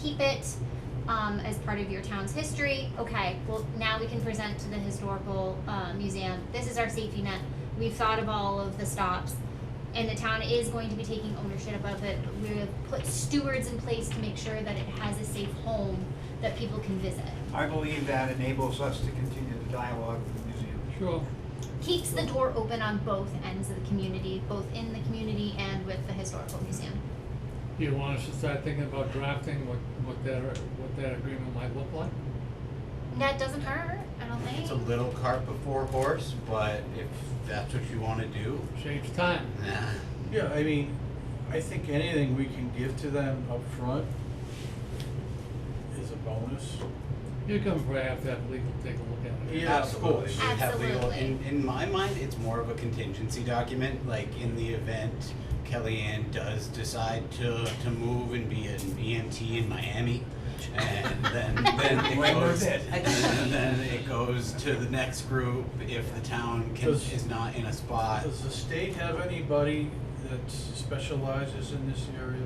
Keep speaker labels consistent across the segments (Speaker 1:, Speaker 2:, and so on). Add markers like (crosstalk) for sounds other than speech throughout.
Speaker 1: keep it um, as part of your town's history. Okay, well, now we can present to the historical uh, museum. This is our safety net. We've thought of all of the stops, and the town is going to be taking ownership of it. We have put stewards in place to make sure that it has a safe home that people can visit.
Speaker 2: I believe that enables us to continue the dialogue with the museum.
Speaker 3: Sure.
Speaker 1: Keeps the door open on both ends of the community, both in the community and with the historical museum.
Speaker 3: Do you want us to start thinking about drafting what, what that, what that agreement might look like?
Speaker 1: That doesn't hurt, I don't think.
Speaker 4: It's a little cart before horse, but if that's what you wanna do,
Speaker 3: Saves time.
Speaker 4: nah.
Speaker 5: Yeah, I mean, I think anything we can give to them up front is a bonus.
Speaker 3: You can perhaps have legal take a look at it.
Speaker 5: Yeah, of
Speaker 4: Absolutely.
Speaker 5: course.
Speaker 4: We have legal-
Speaker 1: Absolutely.
Speaker 4: In, in my mind, it's more of a contingency document, like in the event Kellyanne does decide to, to move and be an EMT in Miami. And then, then it
Speaker 2: Where
Speaker 4: goes,
Speaker 2: was it?
Speaker 4: and (laughs) then it goes to the next group if the town can,
Speaker 5: Does-
Speaker 4: is not in a spot.
Speaker 5: Does the state have anybody that specializes in this area?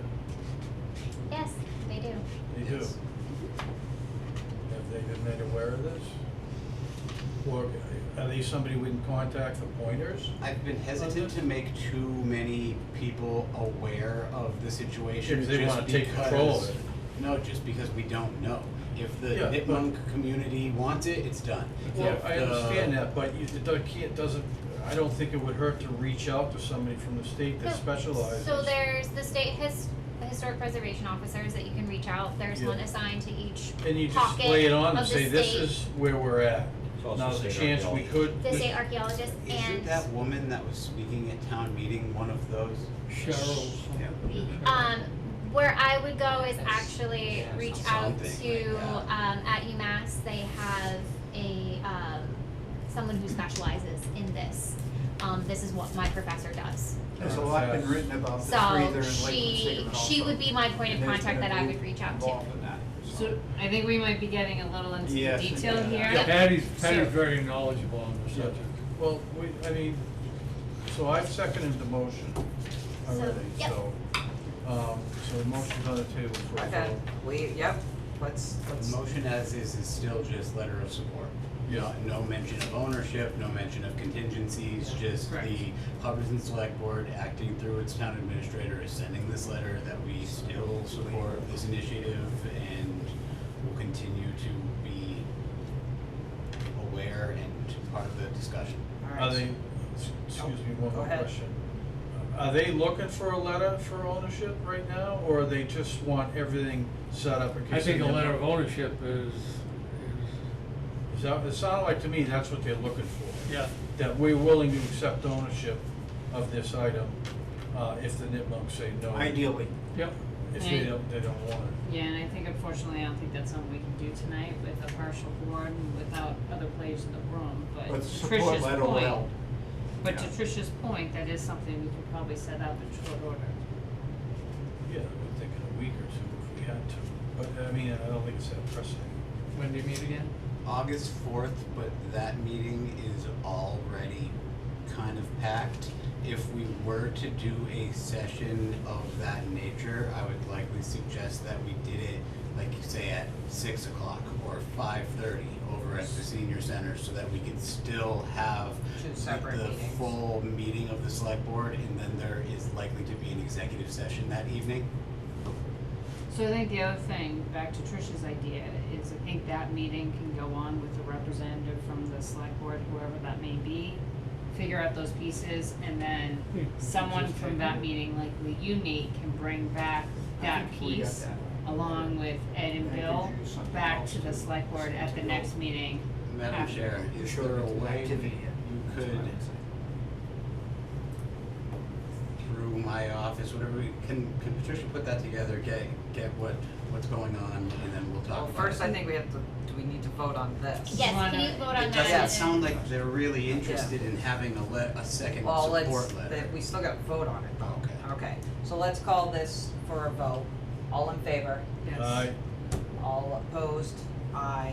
Speaker 1: Yes, they do.
Speaker 5: They do.
Speaker 4: Yes.
Speaker 5: Have they been made aware of this? Or are they somebody we can contact for pointers?
Speaker 4: I've been hesitant to make too many people aware of the situation.
Speaker 5: If they
Speaker 4: just
Speaker 5: wanna take control of
Speaker 4: because-
Speaker 5: it.
Speaker 4: No, just because we don't know. If the
Speaker 5: Yeah, but-
Speaker 4: Nipmunk community wants it, it's done.
Speaker 5: Well,
Speaker 4: If
Speaker 5: I
Speaker 4: the-
Speaker 5: understand
Speaker 4: uh,
Speaker 5: that, but you, it don't- can't, doesn't, I don't think it would hurt to reach out to somebody from the state that
Speaker 1: No,
Speaker 5: specializes.
Speaker 1: So there's the state his, the historic preservation officers that you can reach out, there's
Speaker 5: Yeah.
Speaker 1: one assigned to each
Speaker 5: And you just
Speaker 1: pocket
Speaker 5: lay it on
Speaker 1: of
Speaker 5: and
Speaker 1: the
Speaker 5: say, this
Speaker 1: state-
Speaker 5: is where we're at.
Speaker 6: It's also
Speaker 5: Now, the
Speaker 6: state
Speaker 5: chance we
Speaker 6: archaeology.
Speaker 5: could.
Speaker 1: the state archaeologist
Speaker 4: Isn't
Speaker 1: and,
Speaker 4: that woman that was speaking at town meeting one of those?
Speaker 3: Cheryl's.
Speaker 4: Yeah.
Speaker 1: um, where I would go is
Speaker 6: That's-
Speaker 1: actually
Speaker 6: yeah,
Speaker 1: reach out
Speaker 4: something
Speaker 1: to,
Speaker 4: like
Speaker 1: um, at UMass, they have a, um, someone who specializes in this. Um, this is what my professor does.
Speaker 2: There's a lot been written about this breather
Speaker 1: So
Speaker 2: and Lake
Speaker 1: she,
Speaker 2: Michigan
Speaker 1: she would be my point of contact that I would reach out to.
Speaker 2: Involved in that, so.
Speaker 7: So I think we might be getting a little into the
Speaker 2: Yes, it
Speaker 7: detail
Speaker 2: is.
Speaker 7: here.
Speaker 3: Yeah, Patty's, Patty's
Speaker 7: So-
Speaker 3: very knowledgeable on the subject.
Speaker 5: Well, we, I mean, so I've seconded the motion already,
Speaker 1: yep.
Speaker 5: so. Um, so the motion's on the table for a
Speaker 8: Okay,
Speaker 5: vote.
Speaker 8: we, yep, let's,
Speaker 4: The
Speaker 8: let's,
Speaker 4: motion as is is still just letter of support. Uh,
Speaker 5: Yeah.
Speaker 4: No mention of ownership, no mention of contingencies, just
Speaker 7: Correct.
Speaker 4: the Hubbardson Select Board acting through its town administrator is sending this letter that we still support this initiative and will continue to be aware and part of the discussion.
Speaker 8: alright.
Speaker 5: Are they, s- excuse me, one
Speaker 8: Go
Speaker 5: more
Speaker 8: ahead.
Speaker 5: question. Are they looking for a letter for ownership right now, or they just want everything set up in case?
Speaker 3: I think
Speaker 5: they
Speaker 3: a
Speaker 5: end
Speaker 3: letter
Speaker 5: up-
Speaker 3: of ownership is, is,
Speaker 5: Is that, it sounded like to me that's what they're looking for.
Speaker 3: yeah,
Speaker 5: That we're willing to accept ownership of this item, uh, if the nitmonks say no.
Speaker 2: Ideally,
Speaker 3: yep.
Speaker 5: If they
Speaker 7: Yeah.
Speaker 5: don't, they don't want it.
Speaker 7: Yeah, and I think unfortunately, I don't think that's something we can do tonight with a partial board and without other players in the room, but
Speaker 4: uh,
Speaker 2: but
Speaker 7: to
Speaker 2: support
Speaker 7: Trish's
Speaker 2: letter will help.
Speaker 7: point, but to
Speaker 2: yeah.
Speaker 7: Trish's point, that is something we could probably set up in short order.
Speaker 5: Yeah, I would think in a week or two if we had to, but I mean, I don't think it's that pressing.
Speaker 3: When do you meet again?
Speaker 4: August fourth, but that meeting is already kind of packed. If we were to do a session of that nature, I would likely suggest that we did it, like you say, at six o'clock or five thirty over at the senior center, so that we could still have
Speaker 8: Two separate
Speaker 4: the
Speaker 8: meetings.
Speaker 4: full meeting of the select board, and then there is likely to be an executive session that evening.
Speaker 7: So I think the other thing, back to Trish's idea, is I think that meeting can go on with the representative from the select board, whoever that may be, figure out those pieces, and then
Speaker 3: Hmm.
Speaker 7: someone
Speaker 3: Just
Speaker 7: from
Speaker 3: take
Speaker 7: that
Speaker 3: it.
Speaker 7: meeting, like you, Nate, can bring back that piece along with Ed and
Speaker 2: I could
Speaker 7: Bill
Speaker 2: do something
Speaker 7: back
Speaker 2: else
Speaker 7: to the
Speaker 2: to-
Speaker 7: select board at the
Speaker 2: to
Speaker 7: next
Speaker 2: go.
Speaker 7: meeting.
Speaker 4: Madam
Speaker 7: After.
Speaker 4: Chair, is
Speaker 2: Sure,
Speaker 4: there a
Speaker 2: it's an
Speaker 4: way that
Speaker 2: activity,
Speaker 4: you
Speaker 2: that's what I
Speaker 4: could
Speaker 2: would say.
Speaker 4: through my office, whatever, we- can, can Patricia put that together, get, get what, what's going on, and then we'll talk
Speaker 8: Well,
Speaker 4: about it?
Speaker 8: first, I think we have to, do we need to vote on this?
Speaker 1: Yes, can
Speaker 7: Wanna-
Speaker 1: you vote on
Speaker 4: It
Speaker 1: that?
Speaker 4: doesn't
Speaker 1: and-
Speaker 4: sound like they're really interested in having a le, a second
Speaker 8: Well,
Speaker 4: support letter. Oh,
Speaker 8: let's, that, we still gotta vote on it.
Speaker 4: Okay.
Speaker 8: Okay, so let's call this for a vote. All in favor? Uh,
Speaker 7: Yes.
Speaker 5: I,
Speaker 8: All opposed? Aye.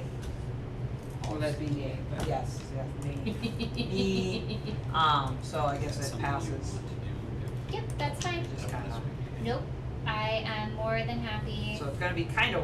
Speaker 7: Well, that'd be Nate, but.
Speaker 8: Yes, yes, me.
Speaker 7: (laughs)
Speaker 8: Me. Um, so I
Speaker 4: Is that
Speaker 8: guess it
Speaker 4: something you
Speaker 8: passes.
Speaker 4: want to do?
Speaker 1: Yep, that's fine.
Speaker 8: Just
Speaker 4: Okay.
Speaker 8: kinda,
Speaker 1: Nope, I am more than happy.
Speaker 8: so it's gonna be kinda